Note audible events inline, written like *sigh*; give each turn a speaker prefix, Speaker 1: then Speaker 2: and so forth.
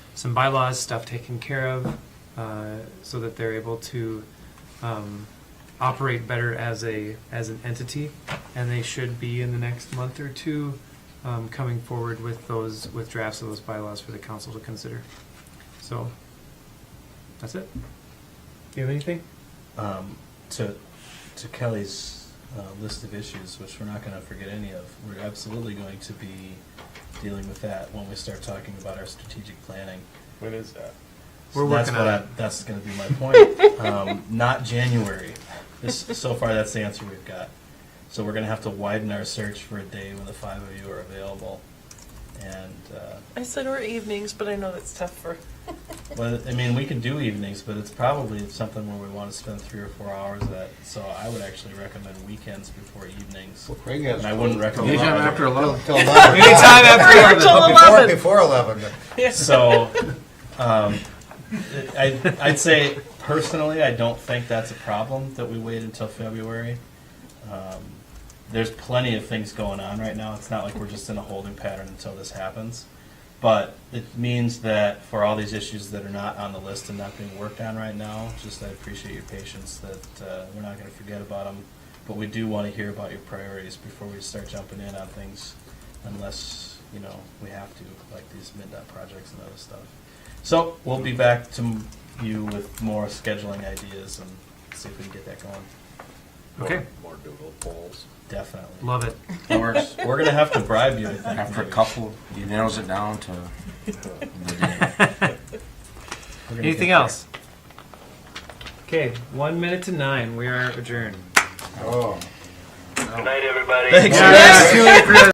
Speaker 1: some bylaws stuff taken care of, uh, so that they're able to um, operate better as a as an entity, and they should be in the next month or two um, coming forward with those with drafts of those bylaws for the council to consider. So that's it. Do you have anything?
Speaker 2: um, to, to Kelly's uh, list of issues, which we're not going to forget any of, we're absolutely going to be dealing with that when we start talking about our strategic planning.
Speaker 3: When is that?
Speaker 1: We're
Speaker 2: that's
Speaker 1: working
Speaker 2: what
Speaker 1: on
Speaker 2: I- That's going to be my
Speaker 1: *laughs*
Speaker 2: point. um, not January. This, so far, that's the answer we've got. So we're going to have to widen our search for a day when the five of you are available. And uh,
Speaker 4: I said or evenings, but I know that's tough for.
Speaker 2: Well, I mean, we can do evenings, but it's probably something where we want to spend three or four hours at. So I would actually recommend weekends before evenings.
Speaker 5: Craig
Speaker 2: And I wouldn't recommend.
Speaker 6: Anytime after
Speaker 5: Till
Speaker 6: eleven.
Speaker 5: till eleven.
Speaker 1: Anytime after
Speaker 4: Or till
Speaker 5: Before-
Speaker 4: eleven.
Speaker 5: Before eleven.
Speaker 2: So, um, I, I'd say personally, I don't think that's a problem that we wait until February. Um, there's plenty of things going on right now. It's not like we're just in a holding pattern until this happens. But it means that for all these issues that are not on the list and not being worked on right now, just I appreciate your patience that uh, we're not going to forget about them. But we do want to hear about your priorities before we start jumping in on things unless, you know, we have to, like these midnight projects and other stuff. So we'll be back to you with more scheduling ideas and see if we can get that going.
Speaker 1: Okay,
Speaker 3: More doodle polls.
Speaker 2: Definitely.
Speaker 1: love it.
Speaker 2: That works. We're gonna have to bribe you, I think.
Speaker 6: After a
Speaker 2: maybe.
Speaker 6: couple, he narrows it down to.
Speaker 2: We're gonna
Speaker 1: Anything
Speaker 2: get there.
Speaker 1: else? Okay, one minute to nine. We are adjourned.
Speaker 5: Oh.
Speaker 2: Thanks.
Speaker 1: Yes.